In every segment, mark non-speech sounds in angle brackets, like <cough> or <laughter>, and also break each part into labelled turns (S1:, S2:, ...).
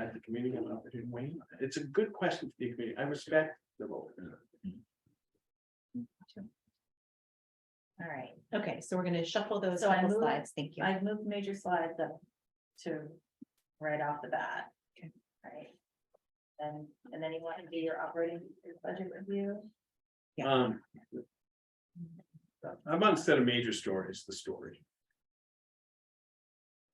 S1: at the community and opportunity weigh in. It's a good question for the community. I respect the vote.
S2: All right, okay, so we're gonna shuffle those
S3: So I
S2: couple
S3: move-
S2: slides, thank you.
S3: I've moved major slides up to right off the bat. Right. And, and then you want to do your operating budget review.
S2: Yeah.
S1: Um. How about instead of major story, it's the story?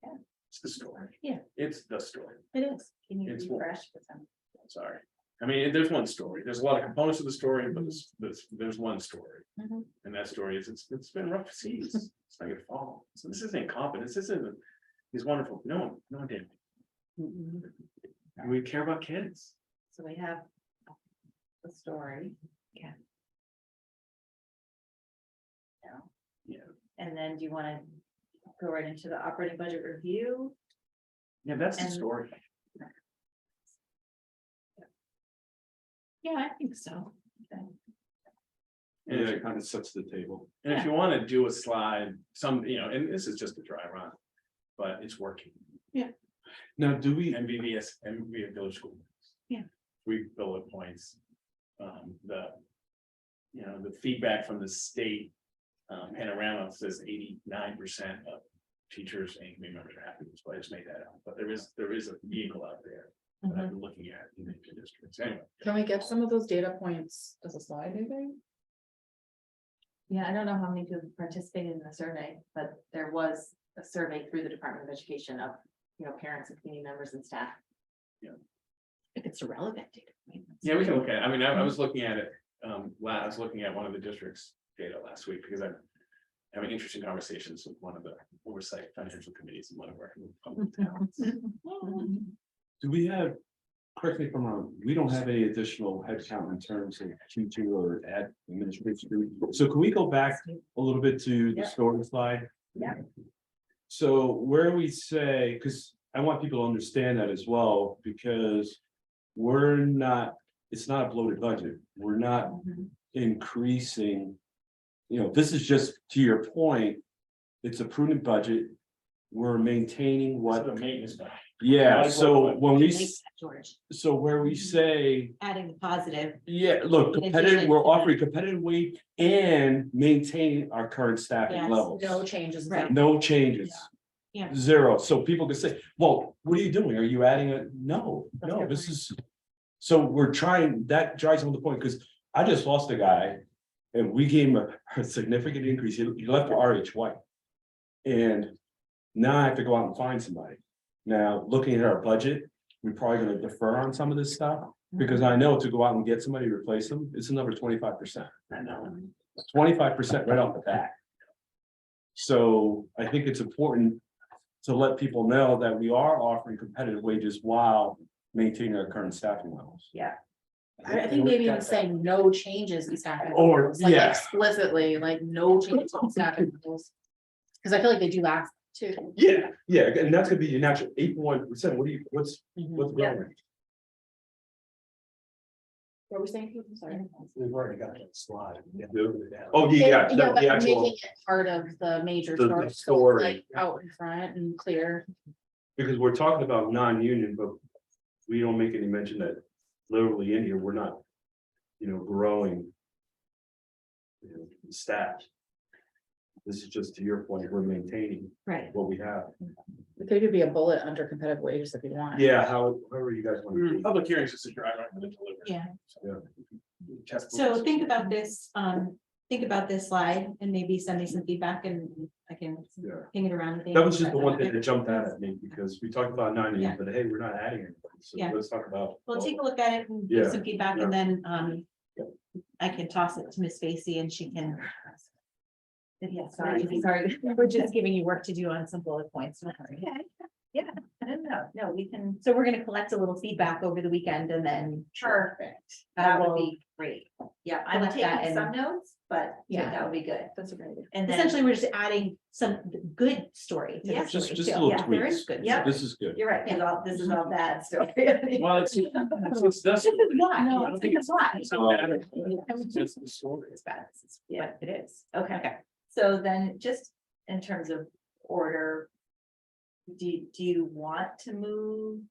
S3: Yeah.
S1: It's the story.
S2: Yeah.
S1: It's the story.
S2: It is.
S3: Can you
S1: It's what-
S3: refresh with some?
S1: Sorry. I mean, there's one story. There's a lot of components of the story, but there's, there's, there's one story.
S2: Mhm.
S1: And that story is, it's, it's been rough seas. It's not gonna fall. So this isn't incompetence. This isn't, he's wonderful. No, no, one did.
S3: Mm-hmm.
S2: Mhm.
S1: We care about kids.
S3: So we have the story.
S2: Okay.
S3: Yeah.
S1: Yeah.
S3: And then do you want to go right into the operating budget review?
S1: Yeah, that's the
S3: And-
S1: story.
S2: Yeah, I think so.
S1: And if
S4: Yeah,
S1: you-
S4: it kind of sets the table.
S1: And if you want to do a slide, some, you know, and this is just a dry run, but it's working.
S4: Now, do we,
S1: MVVS, MVV Village School.
S2: Yeah.
S1: We bullet points. Um, the. You know, the feedback from the state. Um, panorama says eighty-nine percent of teachers and community members are happy, so I just made that up, but there is, there is a vehicle out there. That
S3: Mm-hmm.
S1: I've been looking at in the districts, anyway.
S5: Can we get some of those data points as a slide, maybe?
S3: Yeah, I don't know how many people participated in the survey, but there was a survey through the Department of Education of, you know, parents and community members and staff.
S2: If it's irrelevant. data points.
S1: Yeah, we can look at, it. I mean, I, I was looking at it, um, la- I was looking at one of the district's data last week because I'm. Having interesting conversations with one of the oversight financial committees in one of our. public towns.
S3: Mm-hmm.
S2: Mhm.
S4: do we have, correct me if I'm wrong, we don't have any additional headcount in terms of Q two or ad administration. So can we go back a little bit to the
S3: Yeah.
S4: story slide?
S3: Yeah.
S4: So where we say, because I want people to understand that as well, because we're not, it's not a bloated budget. We're not
S3: Mm-hmm.
S4: increasing. You know, this is just to your point, it's a prudent budget. We're maintaining
S1: What
S4: what
S1: the maintenance, guy.
S4: Yeah,
S1: Right,
S4: so
S1: right,
S4: when we,
S2: Like that,
S4: s-
S2: George, Mm-hmm.
S4: so where we say,
S2: adding the positive,
S4: yeah, look,
S2: In
S4: competitive,
S2: addition
S4: we're
S2: to
S4: offering competitive wage and maintain our current
S2: Yes,
S4: staffing levels.
S5: No changes.
S2: Right.
S4: No changes.
S2: Yeah. Yeah.
S4: Zero, so people can say, well, what are you doing? Are you adding a, no,
S2: That's
S4: no,
S2: good
S4: this is. So we're trying, that drives home the point, because I just lost a guy and we gave him a- a significant increase, he he left for RH White. And now I have to go out and find somebody. Now, looking at our budget, we're probably gonna defer on some of this stuff, because I know to go out and get somebody to replace them, it's another twenty-five percent
S1: I know,
S4: twenty-five percent right off the bat. So I think it's important to let people know that we are offering competitive wages while maintaining our current staffing levels.
S3: Yeah.
S5: I I think maybe even saying no changes in staffing.
S4: Or,
S5: levels, like
S4: yeah.
S5: Explicitly, like no changes in staffing levels. Cause I feel like they do last too.
S4: Yeah, yeah, and that's gonna be your natural eight point one percent. What do you, what's,
S2: Mm-hmm.
S4: what's
S3: Yeah.
S4: going?
S5: What were we saying? I'm sorry.
S1: we've already got that slide.
S4: Oh, yeah, yeah,
S5: but
S4: the- the actual,
S5: Making it part of the major
S4: The- the
S5: story, so
S4: story.
S5: it's like out in front and clear.
S4: because we're talking about non-union, but we don't make any mention that literally in here, we're not, you know, growing you know, staff. This is just to your point, we're maintaining
S2: right,
S4: what we have.
S5: There could be a bullet under competitive wages if you want.
S4: Yeah, how, however you guys want to.
S2: Mm.
S1: Public hearings is a dry run for the delivery.
S2: yeah.
S1: Test
S2: So
S1: books.
S2: think about this, um, think about this slide and maybe send me some feedback and I can
S4: Yeah,
S2: ping it around. with
S4: that was just the
S2: Amy.
S4: one thing that jumped out at me because we talked about nine,
S2: Yeah.
S4: but hey, we're not adding anything. So
S2: Yeah.
S4: let's talk about.
S2: Well, take a look at it and give
S4: Yeah,
S2: some feedback and then, um,
S4: Yeah.
S2: I can toss it to Miss Facy and
S4: <sighs>
S2: she can. Yeah, sorry,
S3: Sorry.
S2: sorry, we're just giving you work to do on some bullet points. don't worry.
S3: Okay, yeah, no, no, we can,
S2: So we're gonna collect a little feedback over the weekend and then.
S3: perfect,
S2: I
S3: that would
S2: will-
S3: be great. Yeah, I'm
S2: Put that
S3: taking
S2: in.
S3: some notes, but yeah,
S2: Yeah.
S3: that would be good. That's a great idea. And then,
S2: Essentially, we're just adding some good story. to the
S3: Yeah.
S4: Just,
S2: story,
S4: just
S2: too.
S4: a little
S2: Yeah, There is
S4: tweaks.
S2: good.
S3: Yeah.
S2: stuff.
S4: This is good.
S3: you're right, 'cause all, this
S2: Mm-hmm.
S3: is all bad story. It's
S1: Well, it's, it's, it's, that's.
S2: This is why.
S1: No, I don't think
S2: This is why.
S1: it's not bad. It's just the story.
S3: bad, <laughs> it's- yeah.
S2: But it is.
S3: Okay,
S2: Okay.
S3: so then just in terms of order. Do, do you want to move